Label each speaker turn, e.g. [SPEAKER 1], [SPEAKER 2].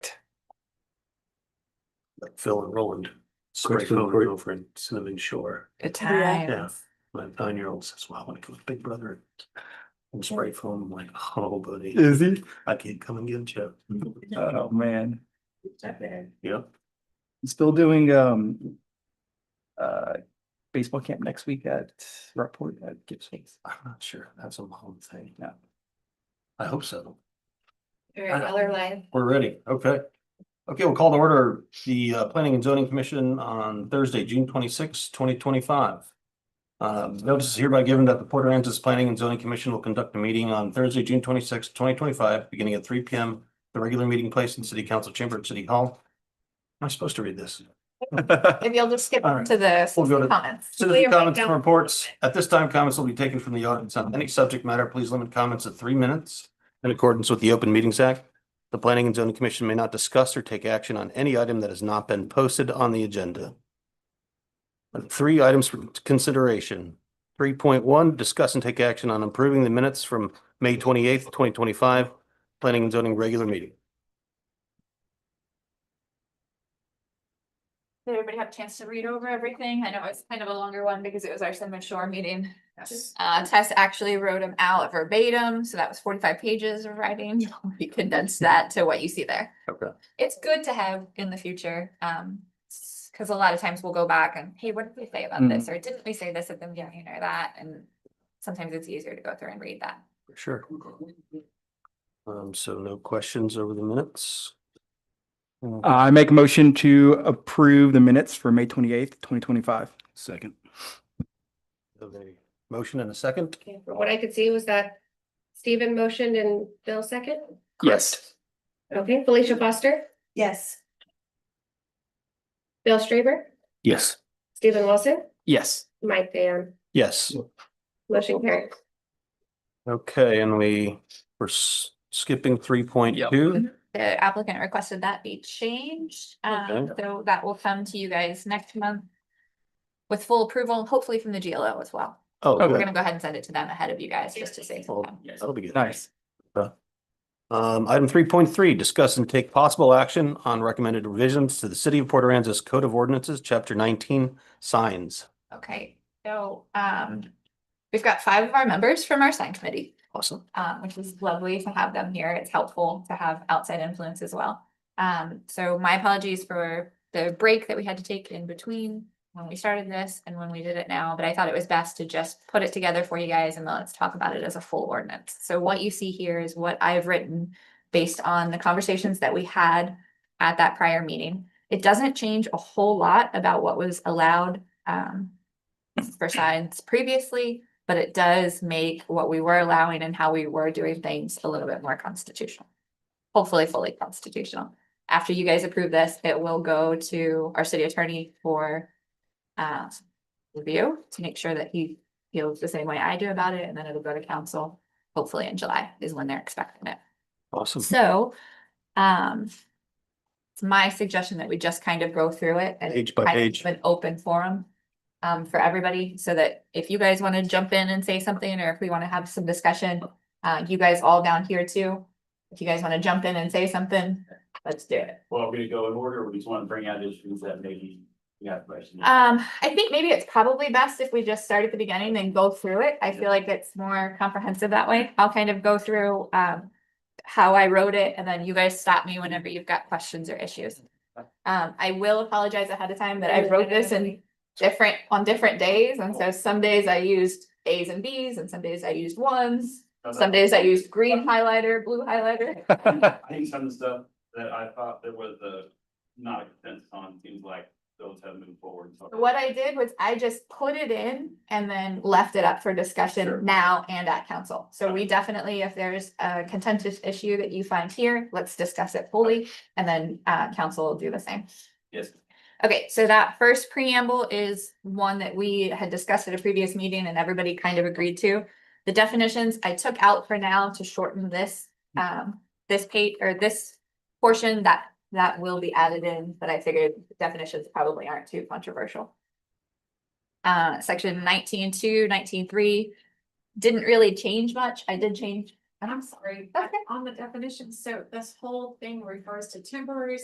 [SPEAKER 1] like Phil and Roland. Great
[SPEAKER 2] Kristen,
[SPEAKER 1] phone
[SPEAKER 2] great.
[SPEAKER 1] over in Cinnamon Shore.
[SPEAKER 3] Good
[SPEAKER 4] Yeah.
[SPEAKER 3] times.
[SPEAKER 1] My nine-year-old says, wow, I want to go with Big Brother. And spray foam, I'm like, oh buddy,
[SPEAKER 2] Is he?
[SPEAKER 1] I can't come and get you.
[SPEAKER 2] Oh, man.
[SPEAKER 1] Yep.
[SPEAKER 2] Still doing, um, uh, baseball camp next week at Rockport at Gibson's.
[SPEAKER 1] I'm not sure. That's a long thing.
[SPEAKER 2] Yeah.
[SPEAKER 1] I hope so.
[SPEAKER 4] All right, Miller Live.
[SPEAKER 1] We're ready. Okay. Okay, we'll call to order the uh, Planning and Zoning Commission on Thursday, June twenty sixth, twenty twenty five. Um, notice is hereby given that the Port Aransas Planning and Zoning Commission will conduct a meeting on Thursday, June twenty sixth, twenty twenty five, beginning at three P M. The regular meeting place in City Council Chamber at City Hall. Am I supposed to read this?
[SPEAKER 4] If you'll just skip
[SPEAKER 1] All right.
[SPEAKER 4] to the
[SPEAKER 1] We'll go to-
[SPEAKER 4] comments.
[SPEAKER 1] Citizen comments and reports. At this time, comments will be taken from the audience on any subject matter. Please limit comments to three minutes. In accordance with the Open Meetings Act, the Planning and Zoning Commission may not discuss or take action on any item that has not been posted on the agenda. Three items for consideration. Three point one, discuss and take action on approving the minutes from May twenty eighth, twenty twenty five, Planning and Zoning Regular Meeting.
[SPEAKER 4] Did everybody have a chance to read over everything? I know it's kind of a longer one because it was our Cinnamon Shore meeting. Uh, Tess actually wrote them out verbatim, so that was forty-five pages of writing. We condensed that to what you see there.
[SPEAKER 1] Okay.
[SPEAKER 4] It's good to have in the future, um, s- cause a lot of times we'll go back and, hey, what did we say about
[SPEAKER 1] Mm.
[SPEAKER 4] this? Or didn't we say this at the beginning or that? And sometimes it's easier to go through and read that.
[SPEAKER 1] Sure. Um, so no questions over the minutes?
[SPEAKER 2] Uh, I make a motion to approve the minutes for May twenty-eighth, twenty twenty-five.
[SPEAKER 1] Second. Motion and a second?
[SPEAKER 5] Okay, from What I could see was that Stephen motioned and Bill second.
[SPEAKER 2] Yes.
[SPEAKER 5] Okay, Felicia Foster,
[SPEAKER 3] Yes.
[SPEAKER 5] Bill Straber,
[SPEAKER 1] Yes.
[SPEAKER 5] Stephen Wilson,
[SPEAKER 2] Yes.
[SPEAKER 5] Mike Van,
[SPEAKER 1] Yes,
[SPEAKER 5] motion carried.
[SPEAKER 1] okay, and we, we're s- skipping three point two.
[SPEAKER 4] The applicant requested that be changed, um,
[SPEAKER 1] Okay.
[SPEAKER 4] so that will come to you guys next month. With full approval, hopefully from the GLO as well.
[SPEAKER 1] Oh,
[SPEAKER 4] We're
[SPEAKER 1] good.
[SPEAKER 4] gonna go ahead and send it to them ahead of you guys, just to save some
[SPEAKER 1] Well,
[SPEAKER 4] time.
[SPEAKER 1] that'll be good.
[SPEAKER 2] Nice.
[SPEAKER 1] Um, item three point three, discuss and take possible action on recommended revisions to the City of Port Aransas Code of Ordinances, Chapter nineteen, signs.
[SPEAKER 4] Okay, so, um, we've got five of our members from our sign committee,
[SPEAKER 1] Awesome.
[SPEAKER 4] um, which is lovely to have them here. It's helpful to have outside influence as well. Um, so my apologies for the break that we had to take in between when we started this and when we did it now, but I thought it was best to just put it together for you guys and then let's talk about it as a full ordinance. So what you see here is what I've written based on the conversations that we had at that prior meeting. It doesn't change a whole lot about what was allowed um for signs previously, but it does make what we were allowing and how we were doing things a little bit more constitutional. Hopefully fully constitutional. After you guys approve this, it will go to our city attorney for uh review to make sure that he feels the same way I do about it, and then it'll go to council. Hopefully in July is when they're expecting it.
[SPEAKER 1] Awesome.
[SPEAKER 4] So, um, it's my suggestion that we just kind of go through it and
[SPEAKER 1] Page by
[SPEAKER 4] kind of
[SPEAKER 1] page.
[SPEAKER 4] keep An open forum, um, for everybody, so that if you guys want to jump in and say something, or if we want to have some discussion, uh, you guys all down here too. If you guys want to jump in and say something, let's do it.
[SPEAKER 6] Well, we're gonna go in order, we just wanna bring out issues that maybe we have questions.
[SPEAKER 4] Um, I think maybe it's probably best if we just start at the beginning and go through it. I feel like it's more comprehensive that way. I'll kind of go through, um. How I wrote it and then you guys stop me whenever you've got questions or issues. Um, I will apologize ahead of time that I wrote this in different, on different days. And so some days I used As and Bs and some days I used ones. Uh, Some days I used green highlighter, blue highlighter.
[SPEAKER 6] I think some of the stuff that I thought there was a, not a consensus on, seems like those have moved forward. so-
[SPEAKER 4] What I did was I just put it in and then left it up for
[SPEAKER 6] Sure.
[SPEAKER 4] discussion now and at council. So we definitely, if there's a contentious issue that you find here, let's discuss it fully. And then uh council will do the same.
[SPEAKER 6] Yes,
[SPEAKER 4] Okay, so that first preamble is one that we had discussed at a previous meeting and everybody kind of agreed to. The definitions I took out for now to shorten this, um, this page or this portion that, that will be added in, but I figured definitions probably aren't too controversial. Uh, section nineteen two, nineteen three, didn't really change much. I did change, I'm sorry.
[SPEAKER 7] sorry, but on the definition, so this whole thing refers to temporary